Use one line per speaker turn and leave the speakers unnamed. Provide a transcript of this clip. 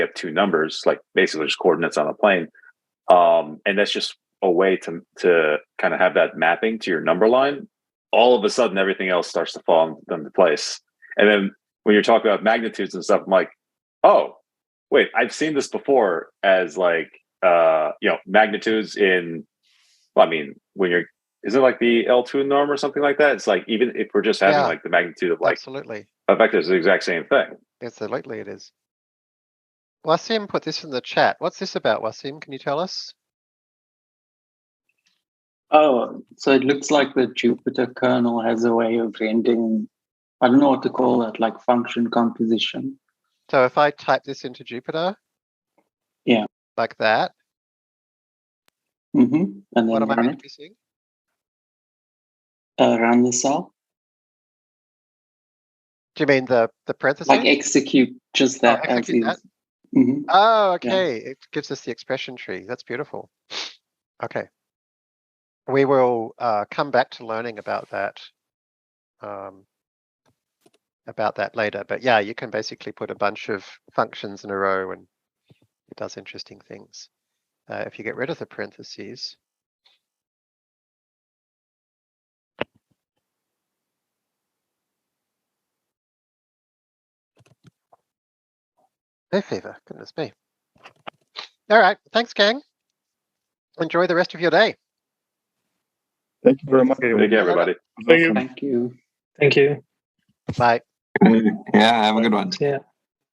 have two numbers, like basically just coordinates on a plane. Um, and that's just a way to to kind of have that mapping to your number line. All of a sudden, everything else starts to fall into place. And then when you're talking about magnitudes and stuff, I'm like, oh, wait, I've seen this before as like uh, you know magnitudes in. Well, I mean, when you're is it like the L2 norm or something like that? It's like even if we're just having
Yeah.
like the magnitude of like
Absolutely.
a vector is the exact same thing.
Absolutely it is. Wasim put this in the chat. What's this about, Wasim? Can you tell us?
Oh, so it looks like the Jupyter kernel has a way of rendering, I don't know what to call that, like function composition.
So if I type this into Jupyter.
Yeah.
Like that,
Mm-hmm. And then
what am I
run,
meant
it,
to be seeing?
uh, run the cell,
Do you mean the, the parentheses?
like execute just that as
Oh, execute that?
is. Mhm.
Oh,
Yeah.
okay. It gives us the expression tree. That's beautiful. Okay. We will uh, come back to learning about that. Um, about that later, but yeah, you can basically put a bunch of functions in a row, and it does interesting things. Uh, if you get rid of the parentheses, hay fever. Goodness me. All right. Thanks, gang. Enjoy the rest of your day.
Thank you very much.
Thank you, everybody.
Thank you.
Thank you.
Thank you.
Bye.
Yeah, have a good one.
Yeah.